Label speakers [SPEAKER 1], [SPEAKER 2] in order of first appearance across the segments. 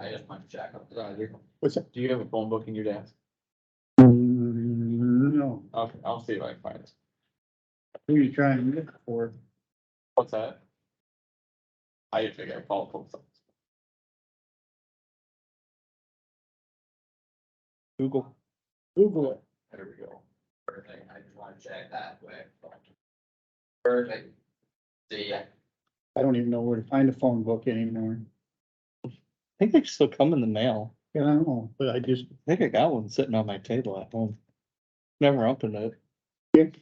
[SPEAKER 1] I just want to check up. Roger,
[SPEAKER 2] What's that?
[SPEAKER 1] do you have a phone book in your desk?
[SPEAKER 3] No,
[SPEAKER 1] Okay, I'll see if I can find it.
[SPEAKER 3] who you trying to look for?
[SPEAKER 1] What's that? I figure I called post office.
[SPEAKER 2] Google.
[SPEAKER 3] Google it.
[SPEAKER 1] There we go. Perfect, I just wanna check that way. Perfect. See ya.
[SPEAKER 3] I don't even know where to find a phone book anymore.
[SPEAKER 2] I think they still come in the mail.
[SPEAKER 3] I don't know, but I just,
[SPEAKER 2] I think I got one sitting on my table at home. Never opened it.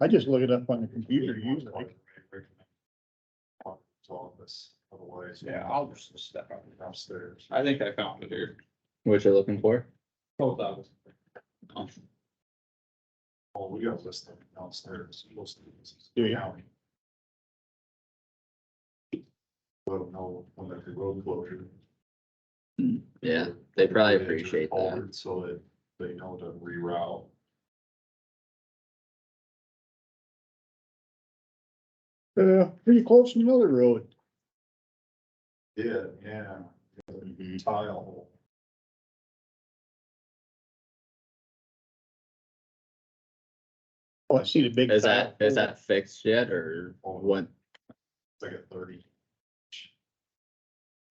[SPEAKER 3] I just look it up on the computer usually.
[SPEAKER 4] Office, otherwise.
[SPEAKER 1] Yeah, I'll just
[SPEAKER 4] step out downstairs.
[SPEAKER 1] I think I found it here.
[SPEAKER 5] What you're looking for?
[SPEAKER 1] Post office.
[SPEAKER 4] Oh, we got listed downstairs.
[SPEAKER 3] Do you?
[SPEAKER 4] Let them know when there's a road closure.
[SPEAKER 5] Yeah, they probably appreciate that.
[SPEAKER 4] So that they know to reroute.
[SPEAKER 3] Uh, pretty close to another road.
[SPEAKER 4] Yeah, yeah. Tile.
[SPEAKER 3] Oh, I see the big.
[SPEAKER 5] Is that,
[SPEAKER 3] tile.
[SPEAKER 5] is that fixed yet or what?
[SPEAKER 4] It's Oh, like a thirty. inch-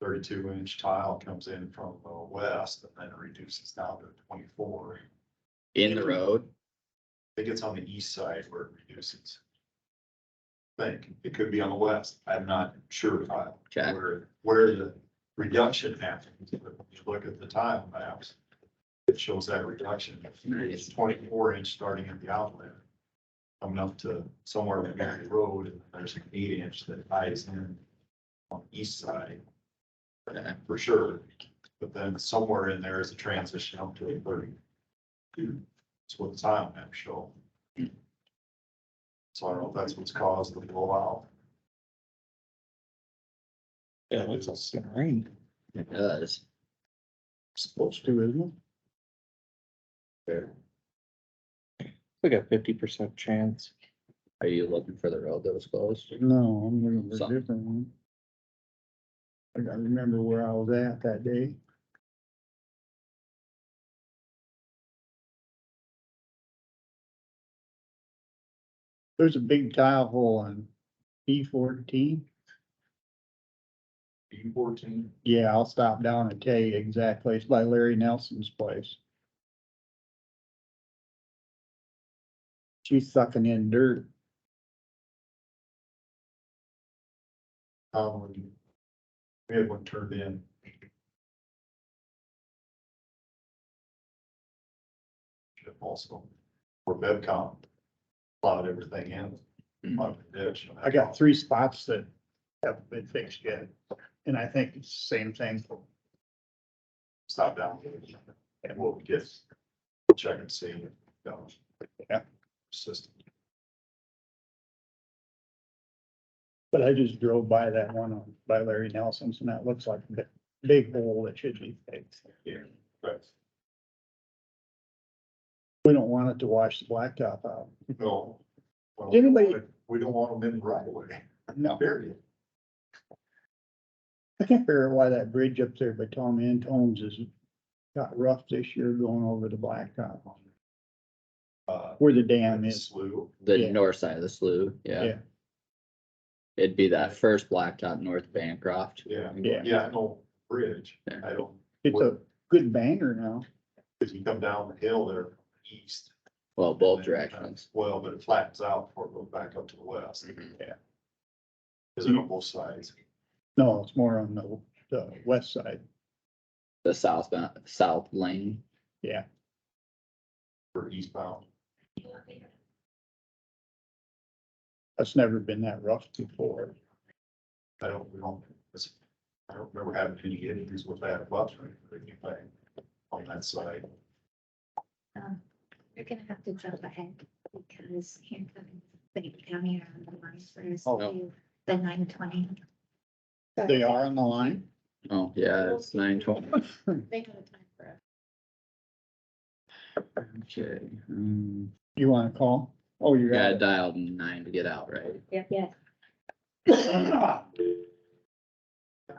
[SPEAKER 4] Thirty-two inch tile comes in from the west and then reduces down to twenty-four.
[SPEAKER 5] In the road?
[SPEAKER 4] I think it's on the east side where it reduces. Think, it could be on the west, I'm not sure Kyle,
[SPEAKER 5] Okay.
[SPEAKER 4] where, where the reduction happens, but if you look at the tile maps. It shows that reduction, it's
[SPEAKER 5] Nice.
[SPEAKER 4] twenty-four inch starting at the outlet. Coming up to somewhere in Mary Road, and there's an eight inch that ties in on the east side.
[SPEAKER 5] Okay.
[SPEAKER 4] For sure, but then somewhere in there is a transition up to a thirty. That's what the tile map show. So I don't know if that's what's caused the blowout.
[SPEAKER 2] Yeah, it looks like it's gonna rain.
[SPEAKER 5] It does.
[SPEAKER 3] Supposed to, isn't it?
[SPEAKER 2] We got fifty percent chance.
[SPEAKER 5] Are you looking for the road that was closed?
[SPEAKER 3] No, I'm looking for
[SPEAKER 5] Something.
[SPEAKER 3] a different one. I gotta remember where I was at that day. There's a big tile hole on B fourteen.
[SPEAKER 4] B fourteen,
[SPEAKER 3] Yeah, I'll stop down and tell you exactly. It's by Larry Nelson's place. She's sucking in dirt.
[SPEAKER 4] um, we had one turned in. Also, where Bevcom plowed everything in, plowed the ditch.
[SPEAKER 3] I got three spots that haven't been fixed yet, and I think it's the same thing.
[SPEAKER 4] Stop down. And we'll get, we'll check and see. if, um,
[SPEAKER 3] Yeah.
[SPEAKER 4] System.
[SPEAKER 3] But I just drove by that one on, by Larry Nelson's, and that looks like a big- big hole that should be fixed.
[SPEAKER 4] But
[SPEAKER 3] We don't want it to wash the blacktop out.
[SPEAKER 4] No. Well,
[SPEAKER 3] Anybody-
[SPEAKER 4] We don't want them in the right away,
[SPEAKER 3] No,
[SPEAKER 4] period.
[SPEAKER 3] I can't figure out why that bridge up there by Tom Antone's has got rough this year going over the blacktop,
[SPEAKER 4] Uh,
[SPEAKER 3] where the dam is.
[SPEAKER 4] Slew,
[SPEAKER 5] The
[SPEAKER 3] Yeah.
[SPEAKER 5] north side of the slough, yeah.
[SPEAKER 3] Yeah.
[SPEAKER 5] It'd be that first blacktop north Bancroft.
[SPEAKER 4] yeah,
[SPEAKER 3] Yeah,
[SPEAKER 4] yeah, no, bridge,
[SPEAKER 5] Yeah.
[SPEAKER 4] I don't,
[SPEAKER 3] it's a good banger now.
[SPEAKER 4] cause you come down the hill there, from the east.
[SPEAKER 5] Well, both
[SPEAKER 4] and then it
[SPEAKER 5] directions.
[SPEAKER 4] turns- Well, but it flattens out before it goes back up to the west,
[SPEAKER 3] Mm-hmm.
[SPEAKER 5] Mhm.
[SPEAKER 4] is it on both sides?
[SPEAKER 3] No, it's more on the, the west side.
[SPEAKER 5] The south, ba- south lane.
[SPEAKER 4] Or eastbound,
[SPEAKER 3] That's never been that rough before.
[SPEAKER 4] I don't, we don't, it's, I don't remember having any issues with that bus or anything on that side.
[SPEAKER 6] Um, You're gonna have to jump ahead because here comes, they come here on the line first,
[SPEAKER 3] Oh.
[SPEAKER 6] to the nine twenty.
[SPEAKER 3] They are on the line.
[SPEAKER 5] Oh, yeah, it's nine twenty.
[SPEAKER 6] They have a time for us.
[SPEAKER 5] Okay. um,
[SPEAKER 3] You wanna call? Oh, you
[SPEAKER 5] Yeah, I
[SPEAKER 3] got
[SPEAKER 5] dialed nine to get out, right?
[SPEAKER 6] Yeah.
[SPEAKER 3] it.